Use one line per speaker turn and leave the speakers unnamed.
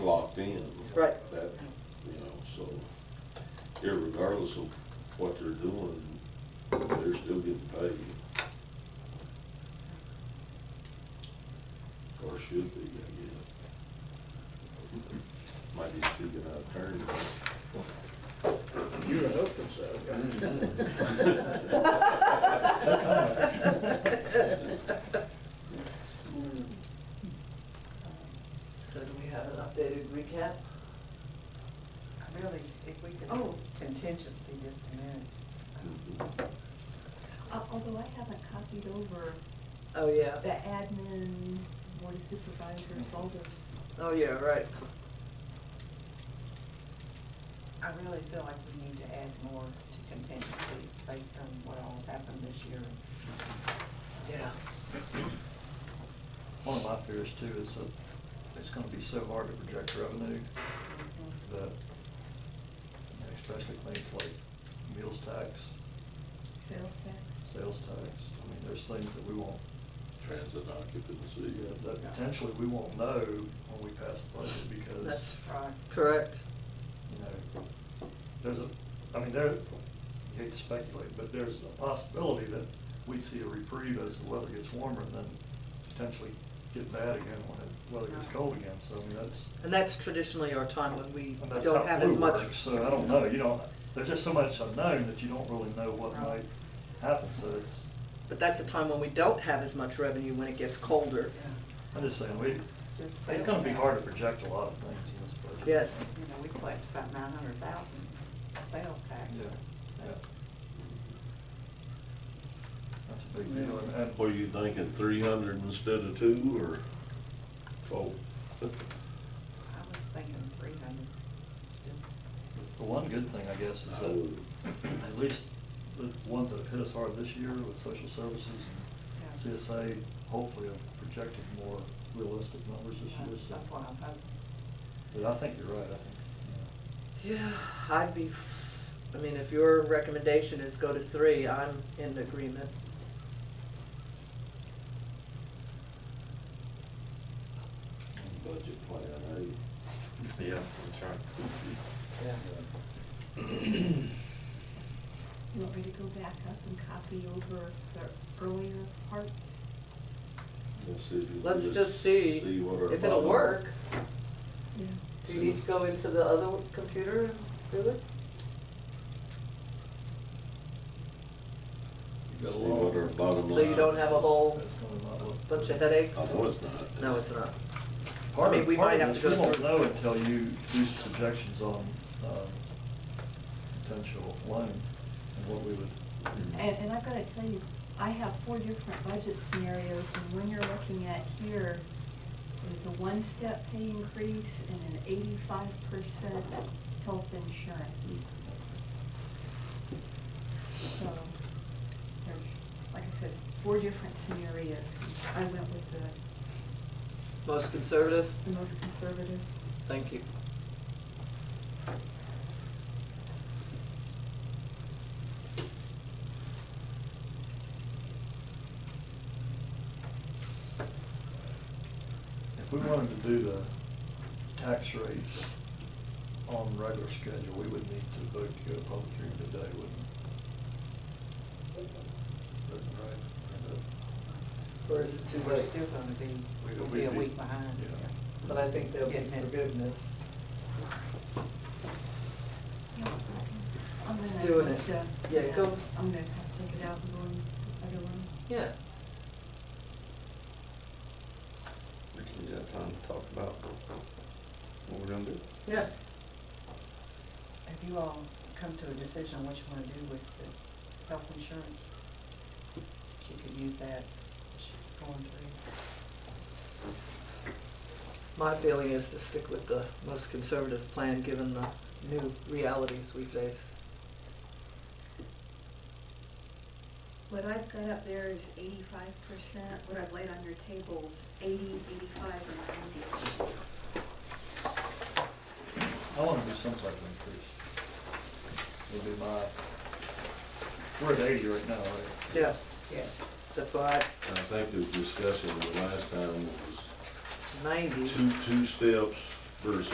locked in.
Right.
That, you know, so irregardless of what they're doing, they're still getting paid. Or should be, I guess. Might be speaking out of turn.
You were hoping so.
So do we have an updated recap? Really, if we could, oh, contingency just a minute.
Mm-hmm.
but-
Al- Uh, Although I haven't copied over
Oh, yeah.
the admin, board of supervisors, all those.
Oh, yeah, right.
I really feel like we need to add more to contingency based on what all's happened this year.
Yeah.
One of my fears too is that it's gonna be so hard to project revenue that, you know, especially things like meals tax,
Sales tax.
sales tax. I mean, there's things that we won't,
Transit occupancy.
that- that potentially we won't know when we pass the budget because.
That's
Right.
Correct.
you know, there's a, I mean, there, I hate to speculate, but there's a possibility that we'd see a reprieve as the weather gets warmer and then potentially get bad again when the weather gets cold again, so I mean, that's.
And that's traditionally our time when we
and that's
don't
how
have as
flu
much.
works, So I don't know, you don't, there's just so much unknown that you don't really know what
Right.
might happen, so it's,
But that's a time when we don't have as much revenue when it gets colder.
Yeah.
I'm just saying, we,
Just
it's
sales
gonna be
tax.
hard to project a lot of things in this budget.
Yes.
You know, we collect about nine hundred thousand sales tax.
Yeah, yeah,
That's-
that's a big deal, and, and
mm-hmm. What are you thinking, three hundred instead of two or four?
I was thinking three hundred, just,
The one good thing, I guess, is that at least the ones that have hit us hard this year with social services
yeah.
and CSA, hopefully have projected more realistic numbers this
Yeah,
year. so-
That's what I'm hoping.
But I think you're right, I think, you
Yeah, I'd be, I mean, if your recommendation is go to three, I'm in agreement.
Budget plan, eh?
know.
Yeah.
You want me to go back up and copy over the earlier parts?
We'll see if it
Let's
is-
just see
what our
if it'll
bottom-
work.
Yeah.
Do you need to go into the other computer and do it?
You got a
See what our
lot-
bottom
So you
line
don't have a
is.
whole
That's gonna not look-
bunch of headaches?
I know it's not.
No, it's not.
Part
I mean,
of,
we
part
might
of
have
this,
to
we
go
won't
through-
know until you do some projections on, um, potential loan and what we would.
And, and I've gotta tell you, I have four different budget scenarios, and when you're looking at here, there's a one-step pay increase and an eighty-five percent health insurance. So, there's, like I said, four different scenarios. I went with the,
Most conservative?
the most conservative.
Thank you.
If we wanted to do the tax rate on regular schedule, we would need to vote to go to public hearing today, wouldn't we? Wouldn't, right?
Or is it too
We're
late?
still gonna be,
We-
we'll
we'd
be a
be-
week behind.
yeah.
But I think there'll be
Getting it.
forgiveness.
I'm gonna
It's doing
have
it.
to-
Yeah, go-
I'm gonna have to take it out and go on the other one.
Yeah.
We got time to talk about what we're gonna do.
Yeah.
Have you all come to a decision on what you wanna do with the health insurance? She could use that, she's going through.
My feeling is to stick with the most conservative plan, given the new realities we face.
What I've got up there is eighty-five percent, what I've laid on your tables, eighty, eighty-five, and ninety.
I wanna do some type of increase. Would be my, we're at eighty right now, right?
Yeah,
Yes.
that's why
I think the discussion the last time was
ninety.
two, two steps versus